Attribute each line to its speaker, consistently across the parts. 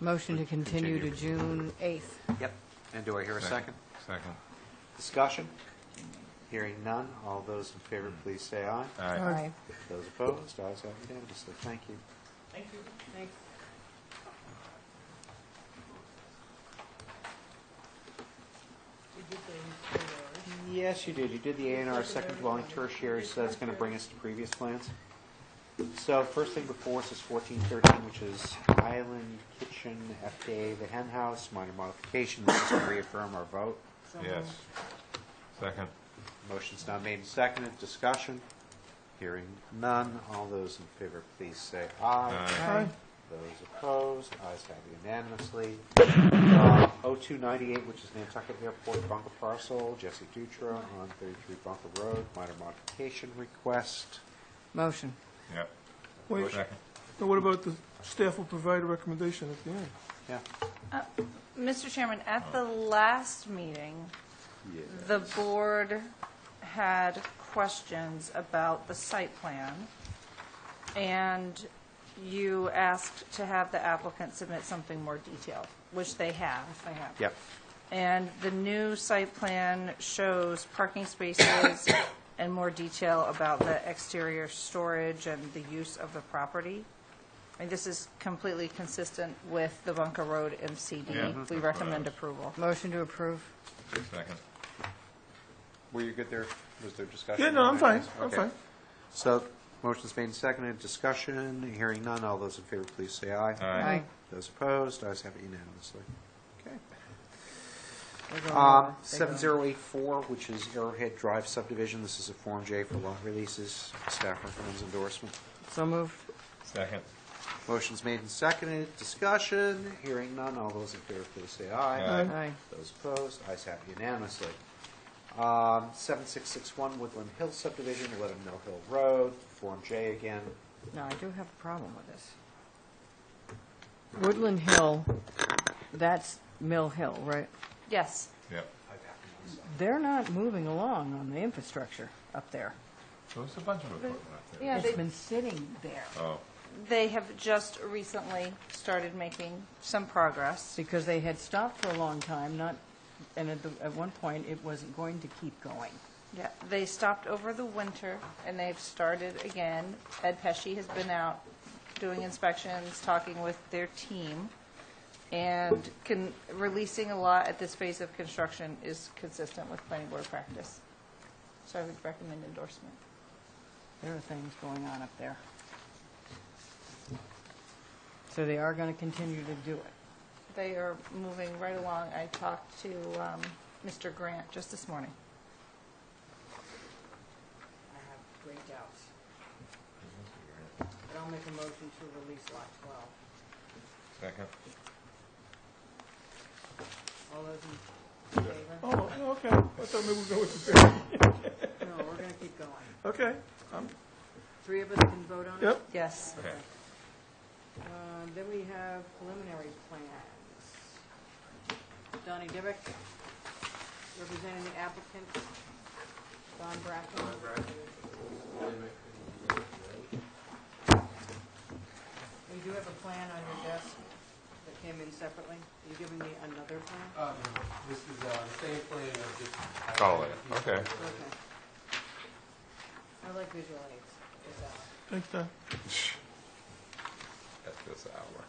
Speaker 1: Motion to continue to June 8th.
Speaker 2: Yep. And do I hear a second?
Speaker 3: Second.
Speaker 2: Discussion? Hearing none. All those in favor, please say aye.
Speaker 3: Aye.
Speaker 2: Those opposed, ayes have unanimously. Thank you. Yes, you did. You did the A and R second dwelling tertiary, so that's going to bring us to previous plans. So first thing before us is fourteen thirteen, which is Island Kitchen, FDA, the hen house, minor modification. This is to reaffirm our vote.
Speaker 3: Yes. Second.
Speaker 2: Motion's now made and seconded. Discussion? Hearing none. All those in favor, please say aye.
Speaker 3: Aye.
Speaker 2: Those opposed, ayes have unanimously. Uh, 0298, which is Nantucket Airport bunker parcel, Jesse Dutra on 33 Bunker Road, minor modification request.
Speaker 1: Motion.
Speaker 3: Yep.
Speaker 4: Wait,
Speaker 3: Second.
Speaker 4: now what about the staff will provide a recommendation at the end?
Speaker 2: Yeah,
Speaker 5: Mr. Chairman, at the last meeting, the board had questions about the site plan, and you asked to have the applicant submit something more detailed, which they have, I have.
Speaker 2: yep,
Speaker 5: And the new site plan shows parking spaces and more detail about the exterior storage and the use of the property. And this is completely consistent with the Bunker Road
Speaker 3: Yeah, that's
Speaker 5: MCD. We
Speaker 3: what I
Speaker 5: recommend
Speaker 3: was-
Speaker 5: approval.
Speaker 1: Motion to approve.
Speaker 3: Second.
Speaker 2: were you good there? Was there discussion?
Speaker 4: Yeah, no, I'm
Speaker 2: on that?
Speaker 4: fine, I'm
Speaker 2: Okay.
Speaker 4: fine.
Speaker 2: So, motion's made and seconded. Discussion? Hearing none. All those in favor, please say aye.
Speaker 3: Aye.
Speaker 2: Those opposed, ayes have it unanimously. Okay.
Speaker 1: They're going over.
Speaker 2: Um,
Speaker 1: They're going.
Speaker 2: 7084, which is Arrowhead Drive subdivision, this is a Form J for lot releases, staff recommends endorsement.
Speaker 1: So moved.
Speaker 3: Second.
Speaker 2: Motion's made and seconded, discussion, hearing none, all those in favor, please say aye.
Speaker 3: Aye.
Speaker 1: Aye.
Speaker 2: Those opposed, ayes have unanimously. Um, 7661 Woodland Hill subdivision, Let 'em Mill Hill Road, Form J again.
Speaker 1: No, I do have a problem with this. Woodland Hill, that's Mill Hill, right?
Speaker 5: Yes.
Speaker 3: Yep.
Speaker 1: They're not moving along on the infrastructure up there.
Speaker 3: There was a bunch of equipment up there.
Speaker 5: Yeah,
Speaker 1: It's
Speaker 5: they,
Speaker 1: been sitting there
Speaker 3: Oh,
Speaker 5: they have just recently started making some progress.
Speaker 1: because they had stopped for a long time, not, and at, the- at one point, it wasn't going to keep going.
Speaker 5: Yeah, they stopped over the winter and they've started again. Ed Pesci has been out doing inspections, talking with their team. And can, releasing a lot at this phase of construction is consistent with planning board practice. So I would recommend endorsement.
Speaker 1: There are things going on up there. So they are going to continue to do it.
Speaker 5: They are moving right along. I talked to um, Mr. Grant just this morning.
Speaker 6: I have great doubts. But I'll make a motion to release lot twelve.
Speaker 3: second.
Speaker 6: All those in favor?
Speaker 4: Oh, okay, I thought maybe we'd go with the bid.
Speaker 6: No, we're gonna keep going.
Speaker 4: Okay,
Speaker 6: Three of us can vote on it?
Speaker 4: yep,
Speaker 5: Yes.
Speaker 3: Okay.
Speaker 6: Uh, Then we have preliminary plans. Donnie Dibick, representing the applicant, Don Bracken. We do have a plan on your desk that came in separately. Are you giving me another plan?
Speaker 7: Uh, no, This is uh, the same plan of just.
Speaker 3: Call it, okay.
Speaker 6: Okay. I like visual aids. It's out.
Speaker 4: thanks, Don.
Speaker 3: At this hour.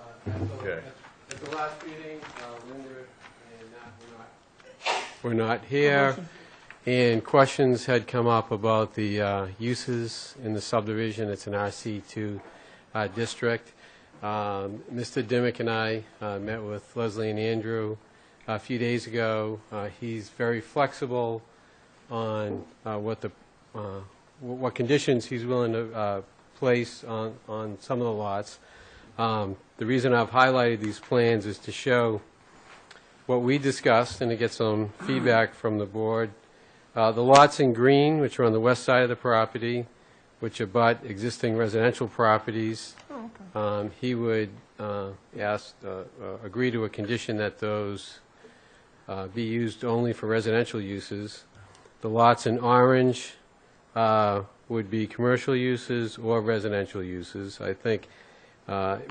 Speaker 7: Uh, at the-
Speaker 3: Okay.
Speaker 7: At at the last meeting, uh, Linda and Nat were not. Were not here, and questions had come up about the uh, uses in the subdivision. It's an RC2 uh, district. Um, Mr. Dimick and I uh, met with Leslie and Andrew a few days ago. Uh, He's very flexible on uh, what the, uh, wh- what conditions he's willing to uh, place on, on some of the lots. Um, The reason I've highlighted these plans is to show what we discussed, and to get some feedback from the board. Uh, The lots in green, which are on the west side of the property, which abut existing residential properties, um, he would uh, ask, uh, uh, agree to a condition that those uh, be used only for residential uses. The lots in orange uh, would be commercial uses or residential uses. I think uh,